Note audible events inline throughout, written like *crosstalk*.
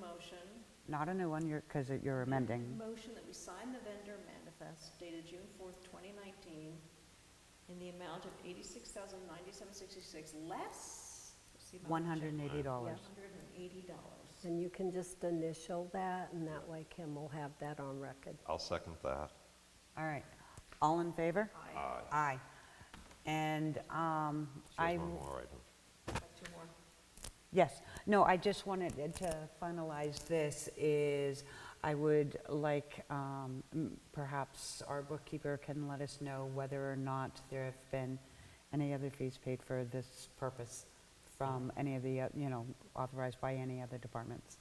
motion, Not a new one, you're, because you're amending. motion that we sign the vendor manifest dated June fourth, twenty nineteen, in the amount of eighty-six thousand ninety-seven sixty-six less. what's the amount? $180. Hundred and eighty dollars. And you can just initial that, and that way Kim will have that on record. I'll second that. All right. All in favor? Aye. Aye. And um, So I, there's one more item. Got Two more. yes, no, I just wanted to finalize this is, I would like, um, m- perhaps our bookkeeper can let us know whether or not there have been any other fees paid for this purpose from any of the, uh, you know, authorized by any other departments.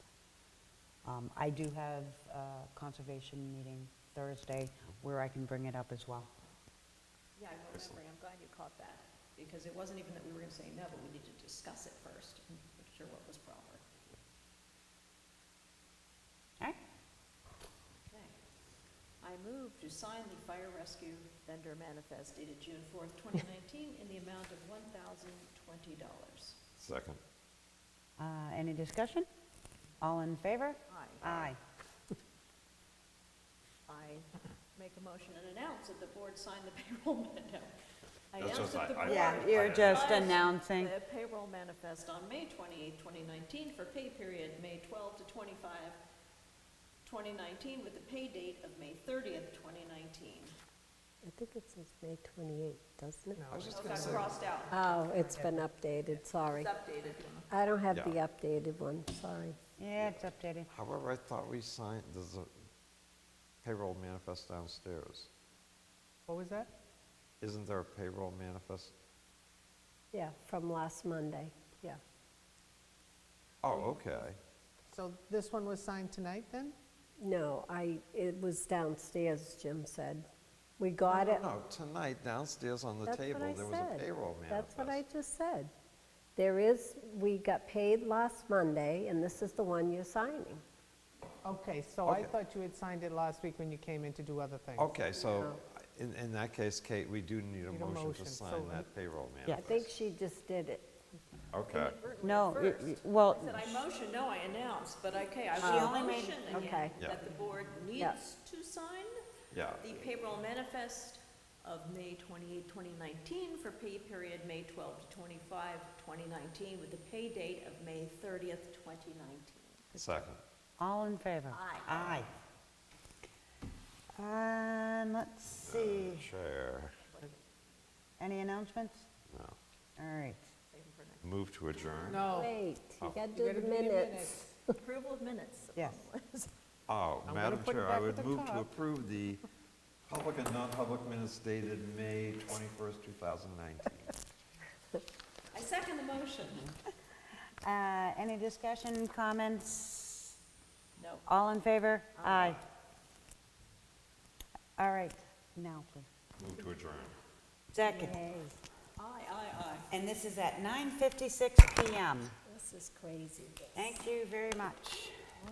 Um, I do have a conservation meeting Thursday where I can bring it up as well. Yeah, I'm remembering, I'm glad you caught that, because it wasn't even that we were gonna say no, but we need to discuss it first, and make sure what was proper. All right? Okay. I move to sign the fire rescue vendor manifest dated June fourth, twenty nineteen, in the amount of one thousand twenty dollars. Second. Uh, Any discussion? All in favor? Aye. Aye. I make a motion and announce that the board signed the *laughs* payroll, man- no. I That's announce what that the I- I- board Yeah, you're just Guys, announcing. The payroll manifest on May 28, 2019 for pay period May 12 to 25, 2019, with the pay date of May 30th, 2019. I think it says May 28th, doesn't it? I was just It going got to say, crossed out, Oh, it's been updated, sorry. it's updated. I don't have the Yeah. updated one, sorry. Yeah, it's updated. however, I thought we signed, there's a payroll manifest downstairs. What was that? Isn't there a payroll manifest? Yeah, from last Monday, yeah. Oh, okay. So this one was signed tonight, then? No, I, it was downstairs, Jim said. We got it. No, tonight downstairs on Oh, the That's what table, I there was a said. payroll That's what I manifest. just said. There is, we got paid last Monday, and this is the one you're signing. Okay, so I Okay. Oh, thought you had signed it last week when you came in to do other things. Okay, so in, in that case, Kate, we do need a Need a motion to motion, sign so- that payroll Yeah. I think manifest. she just did it. Okay, Inadvertently No, at you- first. you- well, I said I motioned, no, I announced, but okay, I She will motion again okay. Yeah. that the board Yeah. needs to sign yeah. the payroll manifest of May 28, 2019 for pay period May 12 to 25, 2019, with the pay date of May 30th, 2019. Second. All in favor? Aye. Aye. And let's see, Chair, any announcements? no. All right. Move to adjourn? No. Wait, Oh. you gotta you do gotta the do your *laughs* minutes. Approval of minutes. Yes. Oh, I'm gonna Madam put it Chair, I back at would the move to top. approve the public and non-public minutes dated May 21st, 2019. I second the motion. Uh, Any discussion, comments? No. All in favor? Aye. All right, now, please. Move to adjourn. Second. Hey, Aye, aye, aye. And this is at 9:56 PM. this is crazy. Thank you very much.